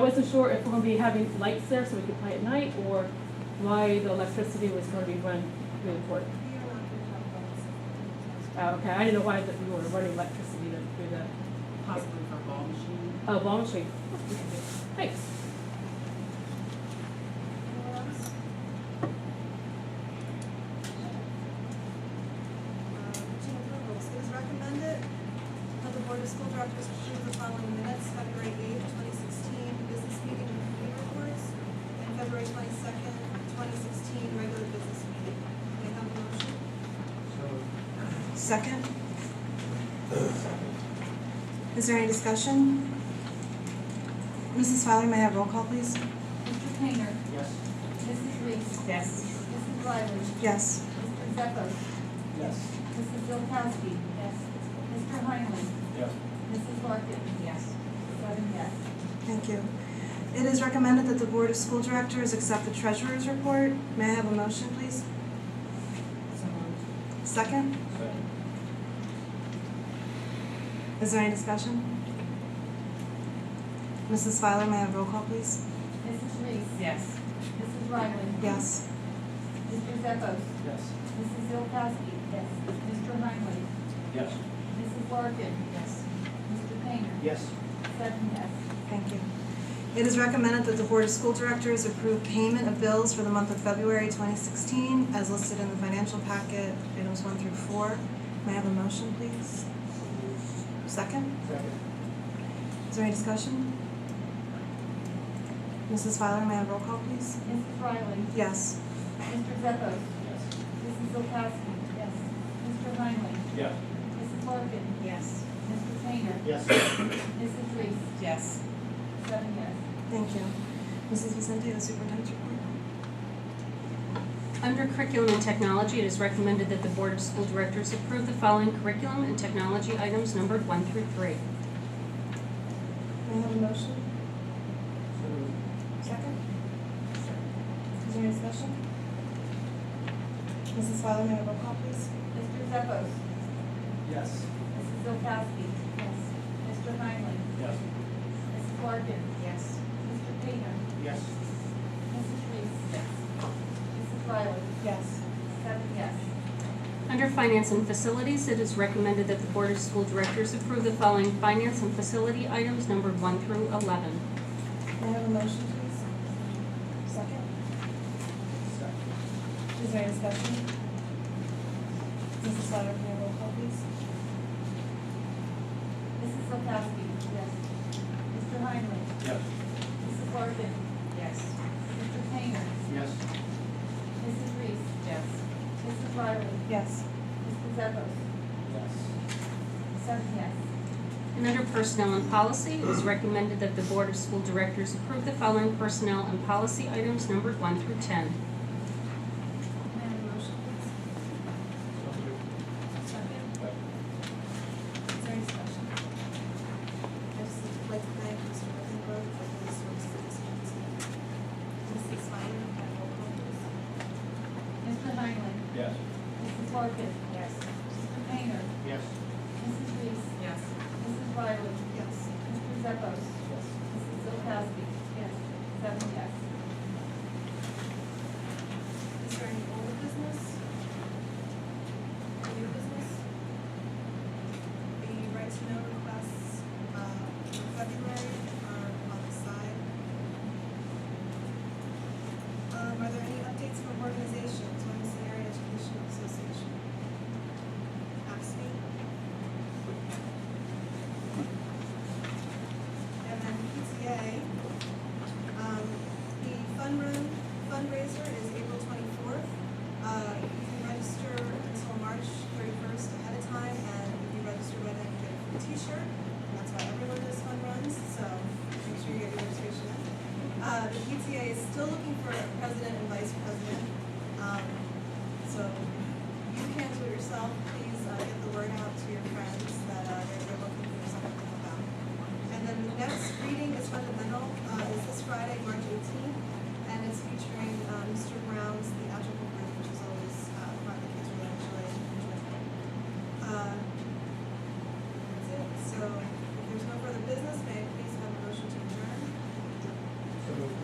wasn't sure if we're gonna be having lights there so we could play at night, or why the electricity was gonna be run through the court. Uh, okay, I didn't know why that we were running electricity to- through the hospital. Possibly for a ball machine. Oh, ball machine. Thanks. Two approvals, it is recommended that the Board of School Directors approve the following minutes, February eighth, twenty sixteen, business meeting and committee reports, and February twenty-second, twenty sixteen, regular business meeting. May I have a motion? Second? Is there any discussion? Mrs. Fowler, may I have roll call, please? Mr. Painter, Yes. Mrs. Reese, Yes. Mrs. Lyers, Yes. Mr. Zeppos, Yes. Mrs. Bilkowski. Yes. Mr. Heinlein, Yes. Mrs. Larkin. Yes. Seven yes. Thank you. It is recommended that the Board of School Directors accept the Treasurer's Report. May I have a motion, please? Second? Second. Is there any discussion? Mrs. Fowler, may I have roll call, please? Mrs. Reese, Yes. Mrs. Ryland, Yes. Mr. Zeppos, Yes. Mrs. Bilkowski. Yes. Mr. Heinlein, Yes. Mrs. Larkin. Yes. Mr. Painter. Yes. Seven yes. Thank you. It is recommended that the Board of School Directors approve payment of bills for the month of February 2016 as listed in the financial packet, items one through four. May I have a motion, please? Second? Second. Is there any discussion? Mrs. Feiler, may I have roll call, please? Mrs. Ryland, Yes. Mr. Zeppos, Yes. Mrs. Bilkowski. Yes. Mr. Heinlein, Yes. Mrs. Larkin, Yes. Mr. Painter, Yes. Mrs. Reese, Yes. seven yes. Thank you. Mrs. Vicente, the superintendent's report. Under Curriculum and Technology, it is recommended that the Board of School Directors approve the following curriculum and technology items numbered one through three. May I have a motion? Second? Is there any discussion? Mrs. Feiler, may I have roll call, please? Mr. Zeppos, Yes. Mrs. Bilkowski. Yes. Mr. Heinlein, Yes. Mrs. Larkin. Yes. Mr. Painter, Yes. Mrs. Reese. Yes. Mrs. Riley, Yes. seven yes. Under Finance and Facilities, it is recommended that the Board of School Directors approve the following finance and facility items numbered one through 11. May I have a motion, please? Second. Second. Is there any discussion? Mrs. Slattery, may I roll call, please? Mrs. Bilkowski. Yes. Mr. Heinlein, Yes. Mrs. Larkin. Yes. Mr. Painter, Yes. Mrs. Reese. Yes. Mrs. Riley, Yes. Mr. Zeppos, Yes. seven yes. And under Personnel and Policy, it is recommended that the Board of School Directors approve the following personnel and policy items numbered one through 10. May I have a motion, please? Second. Is there any discussion? I just would like to thank Mr. Rosenberg for his service to this community. Mrs. Finer, can I roll call, please? Mr. Heinlein, Yes. Mrs. Larkin. Yes. Mr. Painter, Yes. Mrs. Reese. Yes. Mrs. Riley. Yes. Mr. Zeppos. Yes. Mrs. Bilkowski. Yes. Seven yes. Is there any old business? Or New business? The right to know requests, uh, for February are on the side. Um, are there any updates from organizations, Williamson Area Educational Association? ASME? And then PTA, um, the fund run fundraiser is April twenty-fourth. Uh, you can register until March thirty-first ahead of time, and if you register by then, you get a free t-shirt. And That's why everyone does fun runs, so make sure you get your registration in. Uh, the PTA is still looking for a president and vice president. Um, so if you can't do it yourself, please, uh, get the word out to your friends that, uh, they're, they're looking for someone to help out. And then the next reading is fundamental, uh, uh, Uh,